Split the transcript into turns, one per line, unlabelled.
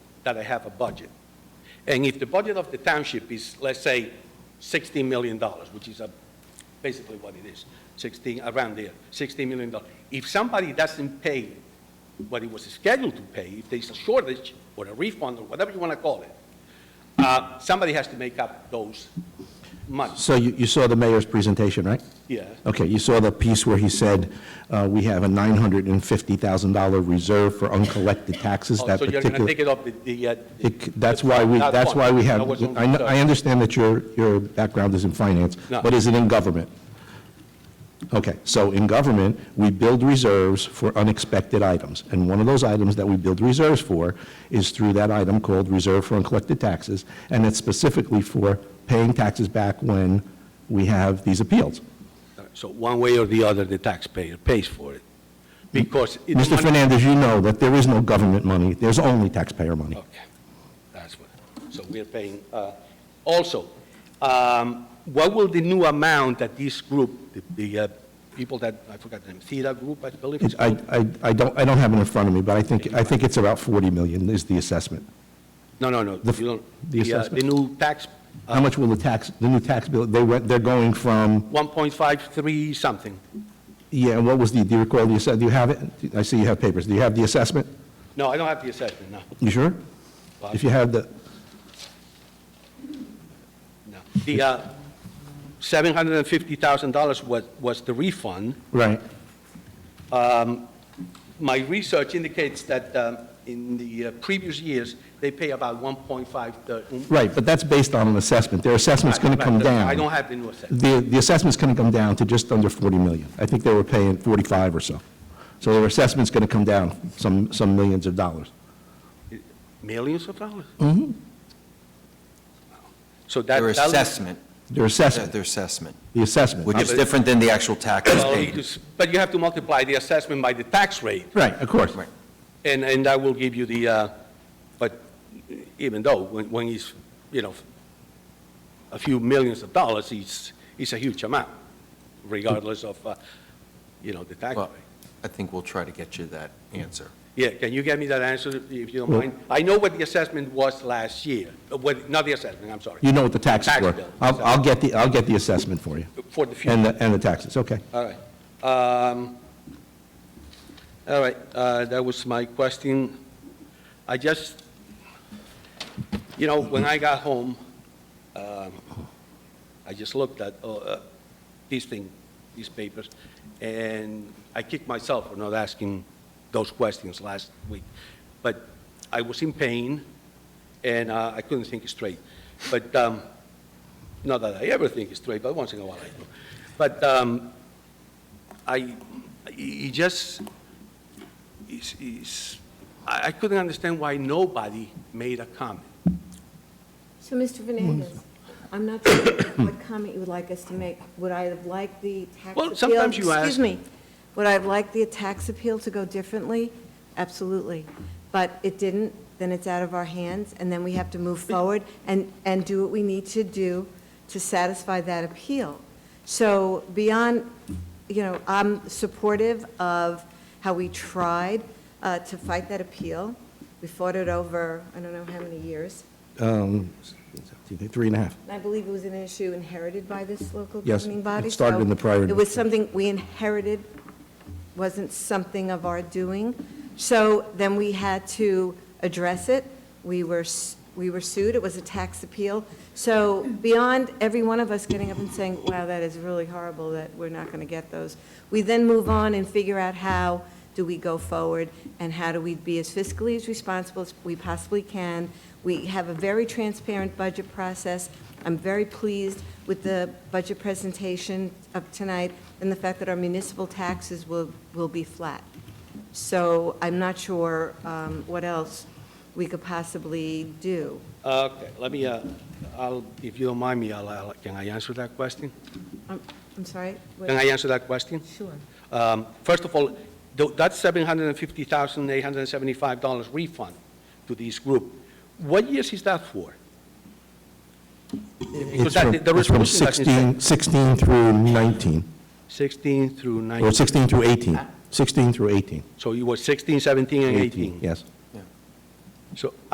that I have a budget. And if the budget of the township is, let's say, $16 million, which is a- basically what it is, 16, around there, $16 million. If somebody doesn't pay what it was scheduled to pay, if there's a shortage or a refund or whatever you want to call it, uh, somebody has to make up those months.
So you, you saw the mayor's presentation, right?
Yeah.
Okay, you saw the piece where he said, uh, we have a $950,000 reserve for uncollected taxes,
Oh,
that
So you're
particular...
going to take it up the- the... uh,
It c- That's why we,
Not
that's
fund.
why we have,
That was on
I, kn-
the-
I understand that your, your background is in finance,
No.
but is it in government? Okay, so in government, we build reserves for unexpected items, and one of those items that we build reserves for is through that item called Reserve for Uncollected Taxes, and it's specifically for paying taxes back when we have these appeals.
So one way or the other, the taxpayer pays for it, because... it-
Mr. Fernandez, you know that there is no government money, there's only taxpayer money.
Okay, that's what, so we're paying, uh, also, um, what will the new amount that this group, the- the uh, people that, I forgot the name, CEDA group, I believe? it's
It's- I,
called?
I, I don't, I don't have it in front of me, but I think, I think it's about 40 million is the assessment.
No, no, no,
the-
you don't,
the
the uh, the
assessment.
new tax,
How much will the tax, the new tax bill, they went, they're going from,
1.53 something.
yeah, and what was the, do you recall, you said, do you have it? I see you have papers. Do you have the assessment?
No, I don't have the assessment, no,
You sure? If you have the,
no. The uh, $750,000 was, was the refund.
right,
My research indicates that um, in the uh, previous years, they pay about 1.5,
right, but that's based on an assessment. Their assessment's going to come down.
um, I don't have the new assessment.
The, the assessment's going to come down to just under 40 million. I think they were paying 45 or so. So their assessment's going to come down some, some millions of dollars.
Millions of dollars? Mm-hmm. So that.
Their
that was-
assessment,
Their
their
assessment,
their assessment,
the assessment.
which
not-
is different than the actual taxes
Well, it
paid.
is- But you have to multiply the assessment by the tax rate,
Right, of course.
Right.
and, and that will give you the, uh, but even though, when, when it's, you know, a few millions of dollars, it's, it's a huge amount, regardless of, uh, you know, the tax rate.
Well, I think we'll try to get you that answer.
Yeah, can you get me that answer, if you don't
Well-
mind? I know what the assessment was last year, uh, what, not the assessment, I'm sorry.
You know what the taxes
Tax
were.
bill.
I'll, I'll get the, I'll get the assessment for you.
For the future.
And the, and the taxes, okay.
All right. Um, All right, uh, that was my question. I just, you know, when I got home, um, I just looked at uh, uh, these things, these papers, and I kicked myself for not asking those questions last week. But I was in pain, and uh, I couldn't think straight. But, um, not that I ever think straight, but once in a while I do. But um, I, it just, it's, it's, I I couldn't understand why nobody made a comment.
So, Mr. Fernandez, I'm not sure what comment you would like us to make. Would I have liked the tax appeal?
Well, sometimes you ask-
Excuse me. Would I have liked the tax appeal to go differently? Absolutely. But it didn't, then it's out of our hands, and then we have to move forward and, and do what we need to do to satisfy that appeal. So beyond, you know, I'm supportive of how we tried uh, to fight that appeal. We fought it over, I don't know how many years.
Um, Three and a half.
I believe it was an issue inherited by this local
Yes,
governing body.
it started
so
in the prior
It was something we inherited, wasn't something of our doing. So then we had to address it. We were, s- we were sued, it was a tax appeal. So beyond every one of us getting up and saying, wow, that is really horrible that we're not going to get those, we then move on and figure out how do we go forward and how do we be as fiscally as responsible as we possibly can. We have a very transparent budget process. I'm very pleased with the budget presentation of tonight and the fact that our municipal taxes will, will be flat. So I'm not sure um, what else we could possibly do.
Okay, let me, uh, I'll, if you don't mind me, I'll- I'll, can I answer that question?
I'm Um, I'm sorry? what-
Can I answer that question?
Sure.
Um, First of all, tho- that $750,875 refund to this group, what years is that for?
It's
that-
from,
the
it's from
resolution doesn't say.
16, 16 through 19,
16 through
or
19,
16 through 18,
Ah.
16 through 18.
so you were 16, 17, and 18?
Yes.
Yeah.
So